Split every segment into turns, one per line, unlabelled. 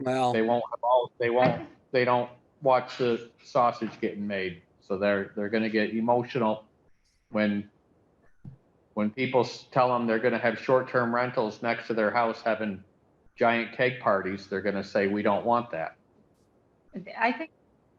Well,
They won't, have all. they won't, they don't watch the sausage getting made. So they're, they're gonna get emotional when, when people s- tell them they're gonna have short-term rentals next to their house having giant cake parties, they're gonna say, we don't want that.
I think,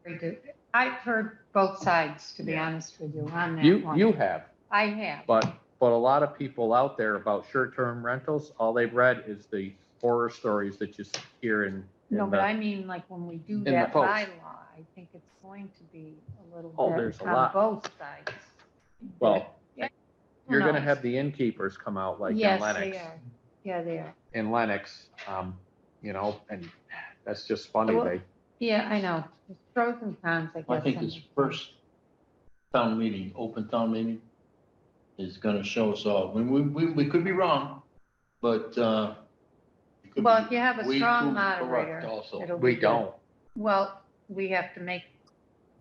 we do. I've heard both sides, to be
Yeah.
honest with you, on that
You,
one.
you have,
I have.
but, but a lot of people out there about short-term rentals, all they've read is the horror stories that you s- hear in. in
No, but
the-
I mean, like, when we do
the
that
post.
bylaw, I think it's going to be a little
Oh, there's
bit
a
on
lot.
both sides.
Well,
Yeah. Who
you're gonna
knows?
have the innkeepers come out like in
Yes,
Lennox.
they are. Yeah, they are.
in Lennox, um, you know, and that's just funny.
Well-
They,
Yeah, I know. There's Pros and cons, I guess.
I think
on
this
it.
first town meeting, open town meeting, is gonna show us all. We, we, we, we could be wrong, but, uh. it could be
Well, if you have a
way
strong
too corrupt
moderator,
Also,
it'll be
we
good.
don't,
Well, we have to make,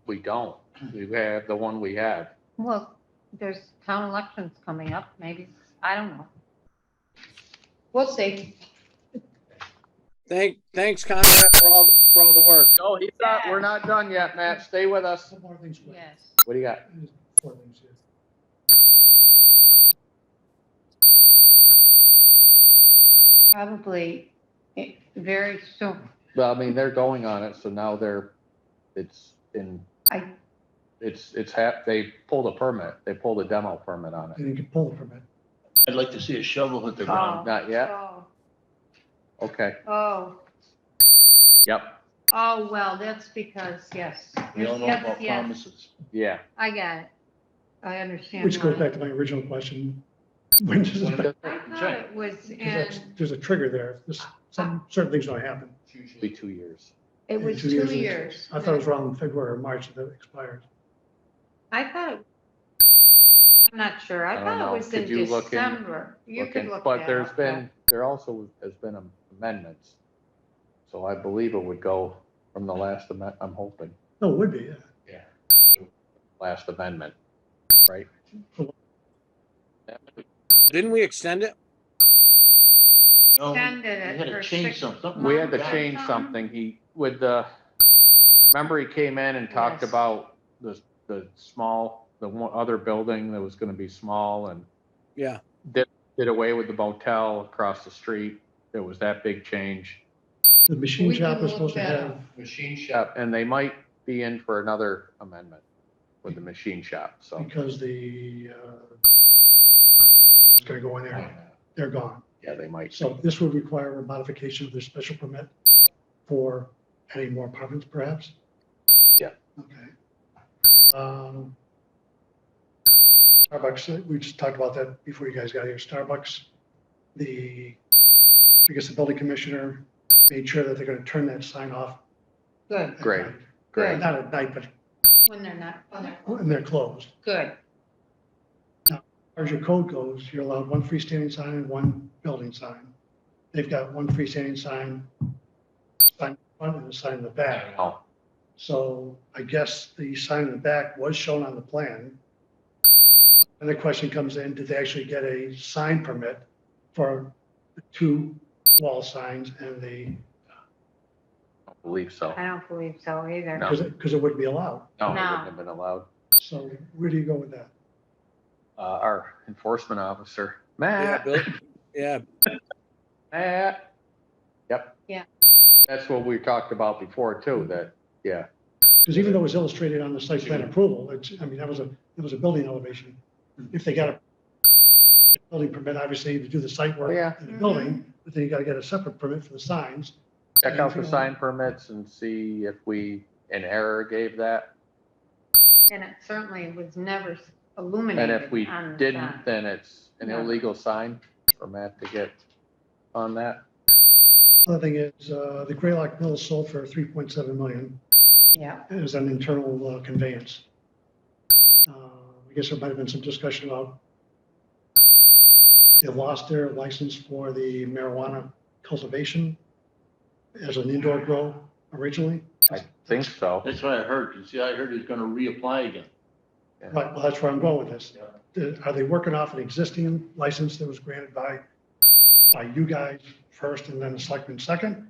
we don't. We have the one we have.
well, there's town elections coming up, maybe, I don't know. We'll see.
thank, thanks Conrad for all, for all the work.
No, Oh, he's not, we're not done yet, Matt. Stay with us.
Some more things quick.
Yes.
What do you got?
Just Four things here.
Probably eh, very soon.
Well, I mean, they're going on it, so now they're, it's in,
I,
it's, it's hap, they pulled a permit. They pulled a demo permit on it.
And you can pull the permit.
I'd like to see a shovel hit the ground.
Not yet?
oh,
Okay,
Oh,
yep,
oh, well, that's because, yes.
We don't know
Yes,
about
yes,
promises.
yeah.
I got it. I understand.
Which goes
why.
back to my original question. When does it affect-
I thought it was
because that's-
in,
There's a trigger there. There's some, certain things don't happen.
Be two years.
Uh, it was
Two years
two
is-
years.
I thought it was around February or March that it expired.
I thought. it- I'm not sure.
I
I
don't
thought
know.
it was in
Could you look in-
December. You could
looking,
look
But
that
there's
up,
been, there also has been amendments. So I believe it would go from the last amendment, I'm hoping,
No, it would be, yeah.
last amendment.
Didn't we extend it?
No, we
Extended it
had
for
to change
six
something.
We had to
Mom,
change
Mom.
something. He, with the, remember he came in and talked
Yes.
about the, the small, the one other building that was gonna be small and
Yeah.
did away with the motel across the street. There was that big change.
The machine
We can
shop is
look
supposed to
that
have,
up.
Machine shop, and they might be in for another amendment with the machine shop, so.
because the, uh, it's gonna go in there. They're gone.
Yeah, they might.
So this would require a modification of their special permit for adding more apartments perhaps?
Yeah.
Okay. Um, Starbucks, we just talked about that before you guys got here. Starbucks, the, I guess the building commissioner made sure that they're gonna turn that sign off.
Good,
at
Great.
night.
Great.
Not at night, but
when they're not, when they're
when they're closed.
good.
far as your code goes, you're allowed one freestanding sign and one building sign. They've got one freestanding sign, sign in front and a sign in the back.
Oh,
So I guess the sign in the back was shown on the plan. And the question comes in, did they actually get a sign permit for the two wall signs and the,
I don't believe so.
I don't believe so either.
No.
because it, because it wouldn't be allowed.
No, it
No.
wouldn't have been allowed.
So where do you go with that?
Uh, our enforcement officer,
Yeah,
Matt,
Bill. Yeah,
Matt. Yep.
Yeah.
That's what we talked about before too, that, yeah,
Because even though it was illustrated on the site plan approval, it's, I mean, that was a, that was a building elevation.
Hmm.
If they got a building permit, obviously, to do the site
Oh, yeah.
work in the building, but then you gotta get a separate permit for the signs.
check out the
Mm-hmm.
sign permits and see if we in error gave that.
And it certainly was never
And
illuminated.
if we
on the
didn't,
sign.
then it's an
No.
illegal sign for Matt to get on that.
Other thing is, uh, the Graylock Mill sold for three point seven million,
Yeah,
it was an internal uh, conveyance. Uh, I guess there might have been some discussion about they lost their license for the marijuana cultivation as an indoor grow originally.
I think so.
That's what I heard. You see, I heard he's gonna reapply again.
Right, well, that's where I'm going with this. Uh, Are they working off an existing license that was granted by, by you guys first and then the selectmen second?